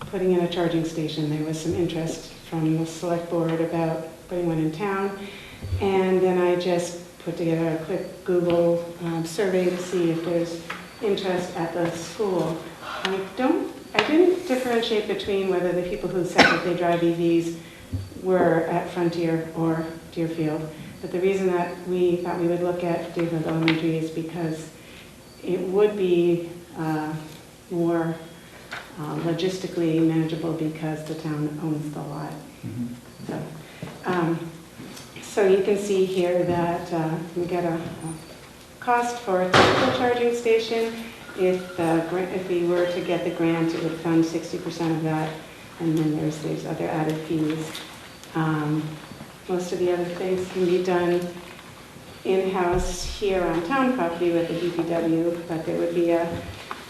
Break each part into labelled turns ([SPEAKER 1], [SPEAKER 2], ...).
[SPEAKER 1] putting in a charging station. There was some interest from the select board about putting one in town. And then I just put together a quick Google um, survey to see if there's interest at the school. I don't, I didn't differentiate between whether the people who said that they drive EVs were at Frontier or Deerfield. But the reason that we thought we would look at Deerfield Elementary is because it would be uh, more uh, logistically manageable because the town owns the lot.
[SPEAKER 2] Mhm.
[SPEAKER 1] So, um, So you can see here that uh, you get a a cost for a typical charging station. If, the gra- if we were to get the grant, it would fund 60% of that, and then there's, there's other added fees. Um, Most of the other things can be done in-house here on town property with the DPW, but there would be a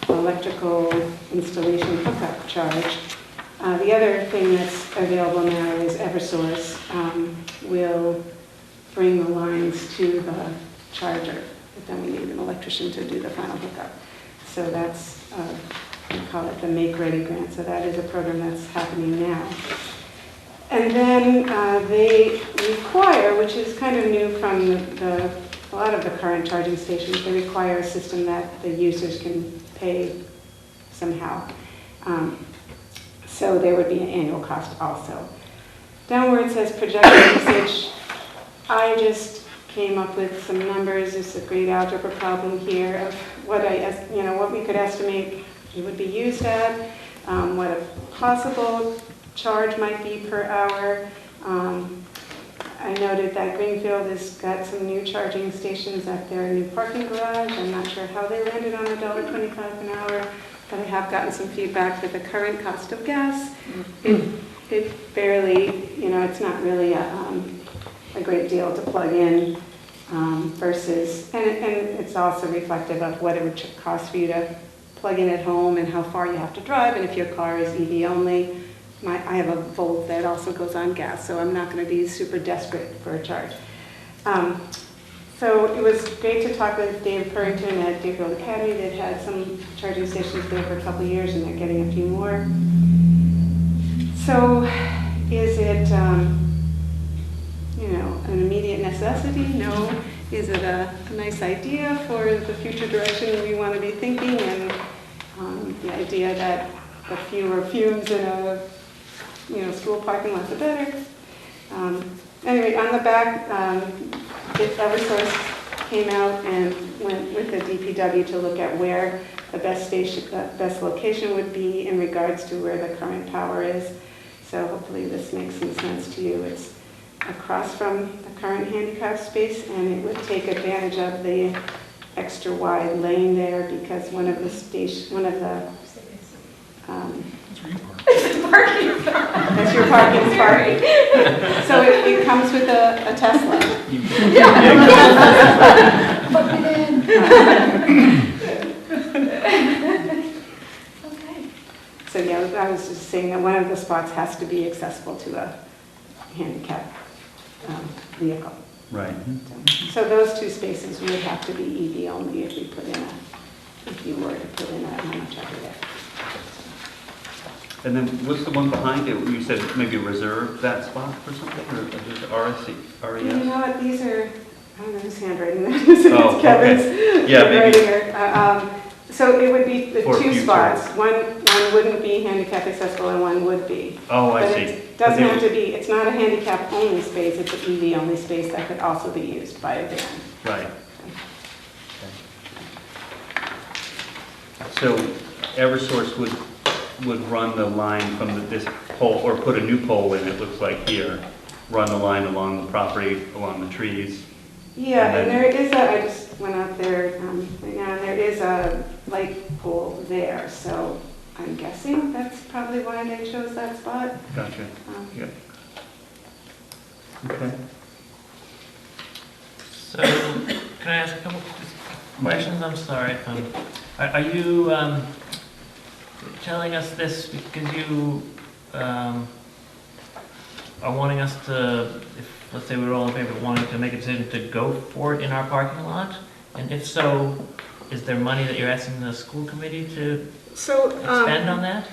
[SPEAKER 1] electrical installation hookup charge. Uh, The other thing that's available now is Eversource um, will bring the lines to the charger, but then we need an electrician to do the final hookup. So that's, uh, we call it the Make Ready Grant, so that is a program that's happening now. And then uh, they require, which is kind of new from the- the, a lot of the current charging stations, they require a system that the users can pay somehow. Um, So there would be an annual cost also. Downward says projected usage. I just came up with some numbers, it's a great algebra problem here of what I, es- you know, what we could estimate it would be used at, um, what a possible charge might be per hour. Um, I noted that Greenfield has got some new charging stations at their new parking garage. I'm not sure how they landed on $1.25 an hour, but I have gotten some feedback that the current cost of gas, it it barely, you know, it's not really a um, a great deal to plug in um, versus, and and it's also reflective of what it would ch- cost for you to plug in at home and how far you have to drive, and if your car is EV only. My, I have a Volt that also goes on gas, so I'm not gonna be super desperate for a charge. Um, So it was great to talk with Dave Purrington at Deerfield Academy, they've had some charging stations there for a couple of years, and they're getting a few more. So is it, um, you know, an immediate necessity? No. Is it a a nice idea for the future direction we want to be thinking? And um, the idea that the fewer fumes in a, you know, school parking lot, the better. Um, Anyway, on the back, um, it- Eversource came out and went with the DPW to look at where the best station, the best location would be in regards to where the current power is. So hopefully this makes some sense to you. It's across from the current handicap space, and it would take advantage of the extra wide lane there because one of the station, one of the, um,
[SPEAKER 2] That's where you are.
[SPEAKER 1] that's your parking spot. So it it comes with a a Tesla.
[SPEAKER 3] Plug it in. Okay.
[SPEAKER 1] So, yeah, I was just saying that one of the spots has to be accessible to a handicapped um, vehicle.
[SPEAKER 2] Right.
[SPEAKER 1] So those two spaces would have to be EV only if we put in a, if you were to put in a, how much I did
[SPEAKER 2] And then what's the one behind it? You said maybe reserve that spot for something or just RSC,
[SPEAKER 1] You
[SPEAKER 2] RES?
[SPEAKER 1] know what, these are, I don't know whose handwriting that is,
[SPEAKER 2] Oh,
[SPEAKER 1] it's
[SPEAKER 2] okay.
[SPEAKER 1] Kevin's.
[SPEAKER 2] Yeah, maybe.
[SPEAKER 1] handwriting or, uh, um, So it would be the
[SPEAKER 2] For
[SPEAKER 1] two
[SPEAKER 2] future.
[SPEAKER 1] spots. One, one wouldn't be handicap accessible and one would be.
[SPEAKER 2] Oh, I
[SPEAKER 1] But
[SPEAKER 2] see.
[SPEAKER 1] it doesn't
[SPEAKER 2] But
[SPEAKER 1] have
[SPEAKER 2] they-
[SPEAKER 1] to be, it's not a handicap-only space, it's an EV-only space that could also be used by a van.
[SPEAKER 2] Right. So Eversource would, would run the line from the- this pole, or put a new pole in, it looks like here, run the line along the property, along the trees.
[SPEAKER 1] Yeah, and
[SPEAKER 2] And then-
[SPEAKER 1] there is a, I just went out there um, right now, and there is a light pole there, so I'm guessing that's probably why they chose that spot.
[SPEAKER 2] Gotcha.
[SPEAKER 1] Um,
[SPEAKER 2] Yeah. Okay.
[SPEAKER 4] So, can I ask a couple questions? I'm sorry. um, Are are you um, telling us this because you um, are wanting us to, if, let's say we're all in favor, wanting to make a decision to go for it in our parking lot? And if so, is there money that you're asking the school committee to
[SPEAKER 1] So,
[SPEAKER 4] spend on that?